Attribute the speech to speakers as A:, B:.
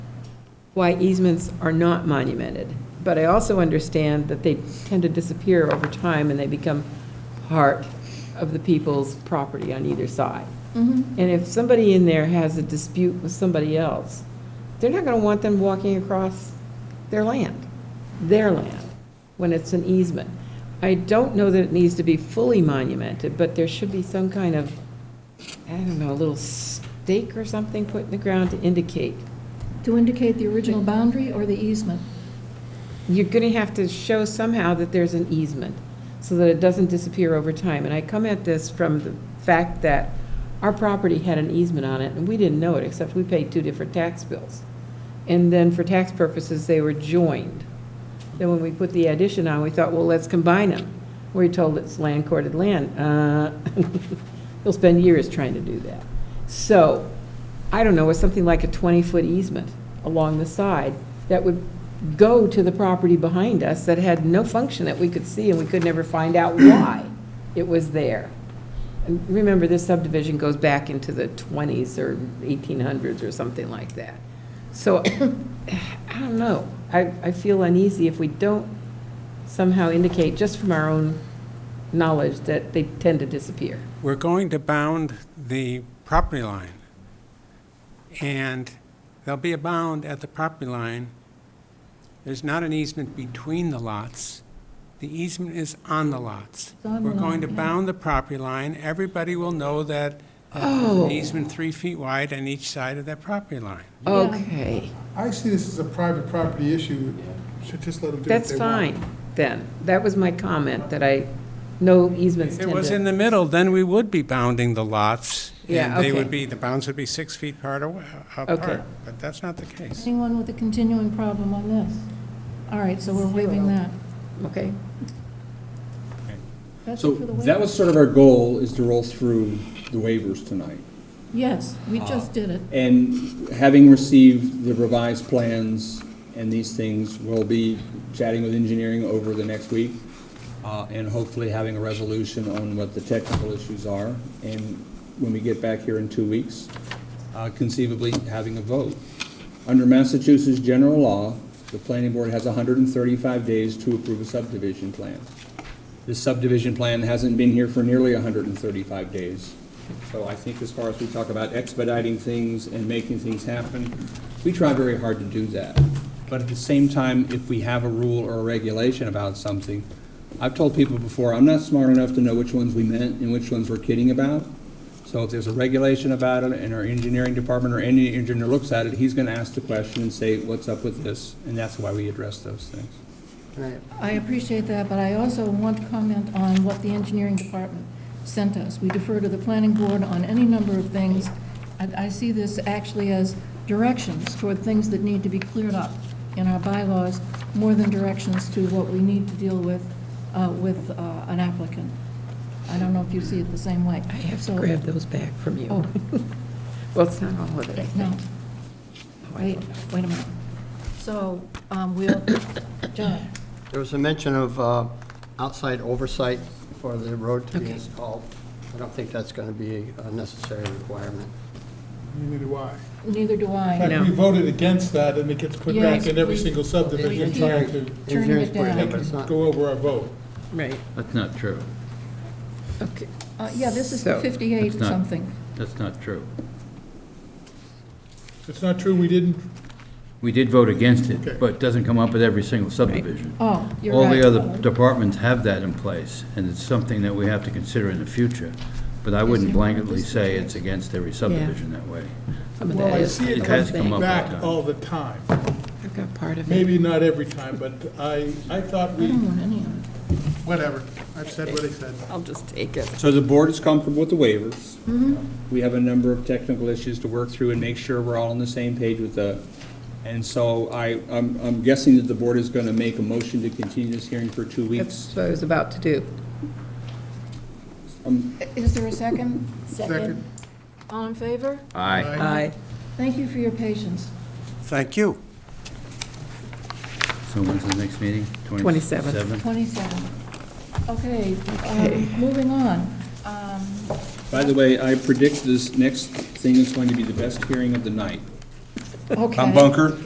A: why easements are not monumented, but I also understand that they tend to disappear over time and they become part of the people's property on either side.
B: Mm-hmm.
A: And if somebody in there has a dispute with somebody else, they're not going to want them walking across their land, their land, when it's an easement. I don't know that it needs to be fully monumented, but there should be some kind of, I don't know, a little stake or something put in the ground to indicate.
B: To indicate the original boundary or the easement?
A: You're going to have to show somehow that there's an easement, so that it doesn't disappear over time. And I come at this from the fact that our property had an easement on it, and we didn't know it, except we paid two different tax bills. And then for tax purposes, they were joined. Then when we put the addition on, we thought, well, let's combine them. We're told it's land courted land. Uh, You'll spend years trying to do that. So, I don't know, it's something like a 20-foot easement along the side that would go to the property behind us that had no function that we could see, and we could never find out why it was there. And remember, this subdivision goes back into the 20s or 1800s or something like that. So, I don't know. I, I feel uneasy if we don't somehow indicate, just from our own knowledge, that they tend to disappear.
C: We're going to bound the property line. And there'll be a bound at the property line. There's not an easement between the lots. The easement is on the lots.
B: It's on the
C: We're going to
B: lot, yeah.
C: bound the property line. Everybody will know that that there's
A: Oh.
C: an easement three feet wide on each side of that property line.
B: Yeah.
A: Okay,
D: I see this as a private property issue, should just let them do what
A: that's
D: they want.
A: fine, then. That was my comment, that I, no easements
C: If it
A: tend
C: was in
A: to.
C: the middle, then we would be bounding the lots.
A: Yeah,
C: And they
A: okay.
C: would be, the bounds would be six feet apart, awa-
A: Okay.
C: apart, but that's not the case.
B: Anyone with a continuing problem on this? All right, so we're waiving that.
A: Okay,
B: That's
E: So
B: it for the
E: that
B: waiver.
E: was sort of our goal, is to roll through the waivers tonight.
B: Yes, we
E: Ah.
B: just did it.
E: And having received the revised plans and these things, we'll be chatting with engineering over the next week uh, and hopefully having a resolution on what the technical issues are. And when we get back here in two weeks, uh, conceivably having a vote. Under Massachusetts general law, the planning board has 135 days to approve a subdivision plan. This subdivision plan hasn't been here for nearly 135 days. So I think as far as we talk about expediting things and making things happen, we try very hard to do that. But at the same time, if we have a rule or a regulation about something, I've told people before, I'm not smart enough to know which ones we meant and which ones we're kidding about. So if there's a regulation about it and our engineering department or any engineer looks at it, he's going to ask the question and say, what's up with this? And that's why we address those things.
B: I appreciate that, but I also want to comment on what the engineering department sent us. We defer to the planning board on any number of things. I, I see this actually as directions toward things that need to be cleared up in our bylaws, more than directions to what we need to deal with, uh, with uh, an applicant. I don't know if you see it the same way.
A: I have to
B: So-
A: grab those back from you.
B: Oh.
A: Well, it's not all of it, I
B: No,
A: think. Oh, I
B: wait,
A: don't know.
B: wait a minute. So, um, we'll, John,
F: There was a mention of uh, outside oversight for the road to be
A: Okay.
F: installed. I don't think that's going to be a necessary requirement.
D: Neither do I.
B: neither do
D: In
B: I.
D: fact, we voted against that, and it gets put
B: Yes,
D: back in every
B: we-
D: single subdivision
B: we-
D: trying to
B: Turning it down.
F: Engineering's putting it, but it's not-
D: go over our vote.
A: Right,
G: That's not true.
A: okay.
B: Uh, Yeah, this is
A: So-
B: 58
G: It's not-
B: something.
G: That's not true.
D: It's not true, we didn't,
G: We did vote against
D: Okay.
G: it, but it doesn't come up with every single subdivision.
B: Oh, you're
G: All
B: right.
G: the other departments have that in place, and it's something that we have to consider in the future. But I wouldn't blanketly say it's against every subdivision that way.
A: Some of
D: well,
A: that
D: I
A: is.
D: see it
G: It has
D: come
G: come up that
D: back
G: time.
D: all the time.
A: I've got part of it.
D: Maybe not every time, but I, I thought
B: I
D: we,
B: don't want any of it.
D: whatever, I've said what I said.
A: I'll just take it.
E: So the board is comfortable with the waivers. We have a number of technical issues to work through and make sure we're all on the same page with the, and so I, I'm, I'm guessing that the board is gonna make a motion to continue this hearing for two
A: That's
E: weeks.
A: what I was about to do.
B: Is there a second?
D: Second.
B: All in favor?
G: Aye.
A: Aye.
B: Thank you for your patience.
C: Thank you.
G: So when's the next meeting?
A: 27th.
B: 27. Okay, um, moving on. Um,
E: By the way, I predict this next thing is going to be the best hearing of the night.
B: Okay.
E: Tom Bunker,